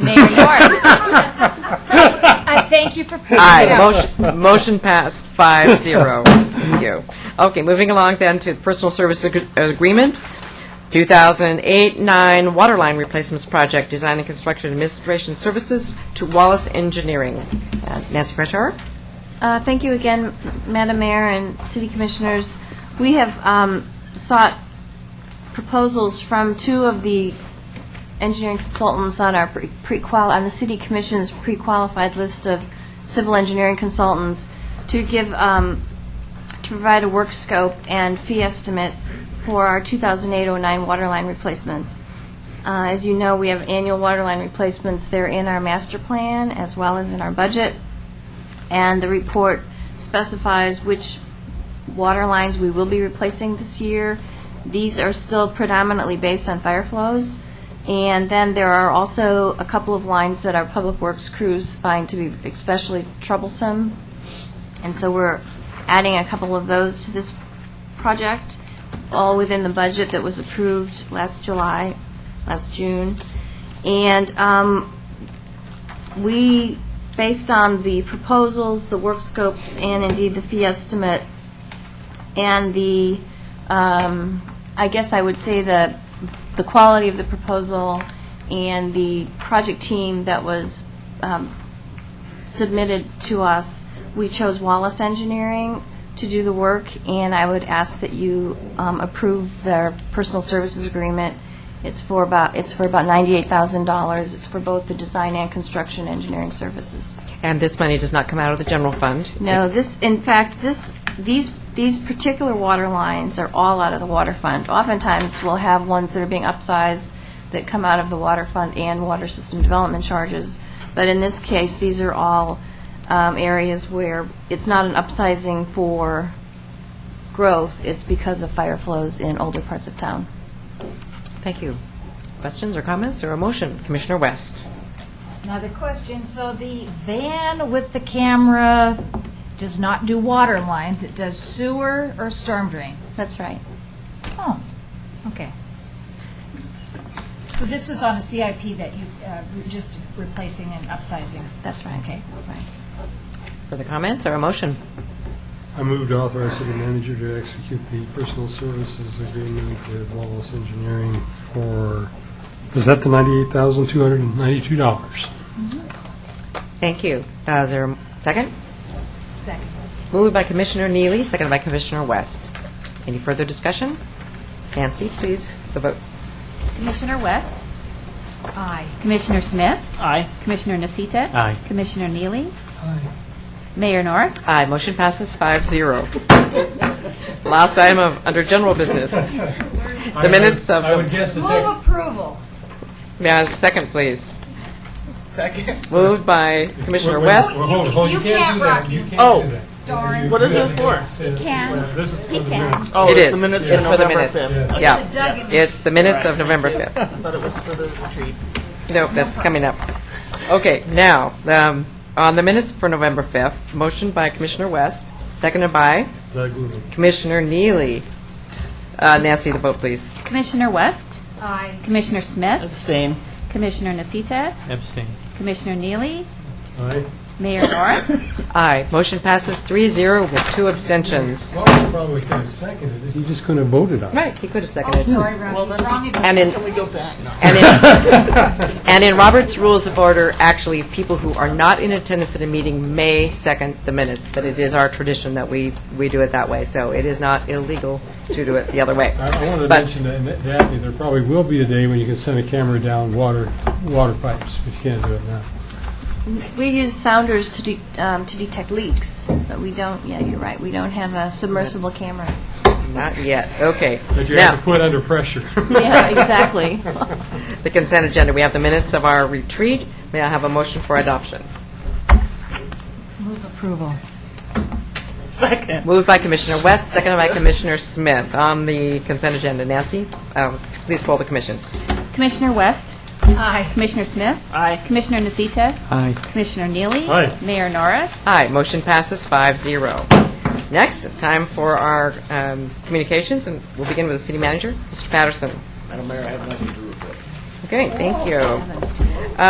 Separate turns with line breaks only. Mayor Morris. I thank you for pointing it
Aye,
out.
motion, motion passed, five zero. Thank you. Okay, moving along then to the Personal Services Ag- Agreement, 2008-9 Water Line Replacements Project, Design and Construction Administration Services to Wallace Engineering. Uh, Nancy Freshour?
Uh, Thank you again, Madam Mayor and City Commissioners. We have um, sought proposals from two of the engineering consultants on our pre- pre-qual, on the City Commission's pre-qualified list of civil engineering consultants to give, um, to provide a work scope and fee estimate for our 2008-09 water line replacements. Uh, As you know, we have annual water line replacements. They're in our master plan as well as in our budget and the report specifies which water lines we will be replacing this year. These are still predominantly based on fire flows, and then there are also a couple of lines that our public works crews find to be especially troublesome, and so we're adding a couple of those to this project, all within the budget that was approved last July, last June. And um, we, based on the proposals, the work scopes, and indeed the fee estimate, and the, um, I guess I would say the, the quality of the proposal and the project team that was um, submitted to us, we chose Wallace Engineering to do the work, and I would ask that you um, approve their personal services agreement. It's for about, it's for about $98,000. It's for both the design and construction engineering services.
And this money does not come out of the general fund?
No, this, in fact, this, these, these particular water lines are all out of the water fund. Oftentimes, we'll have ones that are being upsized that come out of the water fund and water system development charges. But in this case, these are all um, areas where it's not an upsizing for growth, it's because of fire flows in older parts of town.
Thank you. Questions or comments or a motion? Commissioner West?
Another question, so the van with the camera does not do water lines, it does sewer or storm drain?
That's right.
Oh, okay. So this is on a CIP that you've, uh, re- just replacing and upsizing?
That's right.
Okay.
Right.
Further comments or a motion?
I move to authorize city manager to execute the personal services agreement with Wallace Engineering for, is that the $98,292?
Thank you. Uh, Is there a second?
Second.
Moved by Commissioner Neely, seconded by Commissioner West. Any further discussion? Nancy, please, the vote.
Commissioner West,
Aye.
Commissioner Smith. Aye. Commissioner Nasita. Aye. Commissioner Neely. Aye. Mayor Norris.
Aye, motion passes five zero. Last item of, under general business. The minutes of,
I would
the-
guess the tech-
Move approval.
may I have a second, please? Second. Moved by Commissioner
wait, wait,
West.
wait, hold, hold,
You can't
do that.
rock.
You can't do
Oh.
that.
Darn.
What is it for?
It
can.
This is for the
He can.
minutes.
Oh,
It
it's
is.
the minutes
It's
for
for the
November
minutes.
5th.
Yeah,
Doug and
it's the minutes of November 5th.
I thought it was for the retreat.
No, that's coming up. Okay, now, um, on the minutes for November 5th, motion by Commissioner West, seconded by
Doug Lumen.
Commissioner Neely. Uh, Nancy, the vote, please.
Commissioner West,
Aye.
Commissioner Smith,
Abstain.
Commissioner Nasita,
Abstain.
Commissioner Neely,
Aye.
Mayor Norris.
Aye, motion passes three zero with two abstentions.
Well, he probably could have seconded it, he just couldn't have voted on it.
Right, he could have
Oh,
seconded.
sorry, wrong, wrong.
And in,
advice.
we go back?
and in, and in Robert's Rules of Order, actually, people who are not in attendance at a meeting may second the minutes, but it is our tradition that we, we do it that way, so it is not illegal to do it the other way.
I I wanted to
But-
mention that, Daphne, there probably will be a day when you can send a camera down water, water pipes, but you can't do it now.
We use sounders to de- um, to detect leaks, but we don't, yeah, you're right, we don't have a submersible camera.
Not yet, okay.
But you have
Now,
to put under pressure.
Yeah, exactly.
the consent agenda, we have the minutes of our retreat, may I have a motion for adoption?
Move approval.
Second.
Moved by Commissioner West, seconded by Commissioner Smith. On the consent agenda, Nancy, um, please poll the commission.
Commissioner West,
Aye.
Commissioner Smith,
Aye.
Commissioner Nasita,
Aye.
Commissioner Neely.
Aye.
Mayor Norris.
Aye, motion passes 5-0. Next, it's time for our um, communications, and we'll begin with the city manager, Mr. Patterson. Madam Mayor, I have nothing to report. Okay, thank you.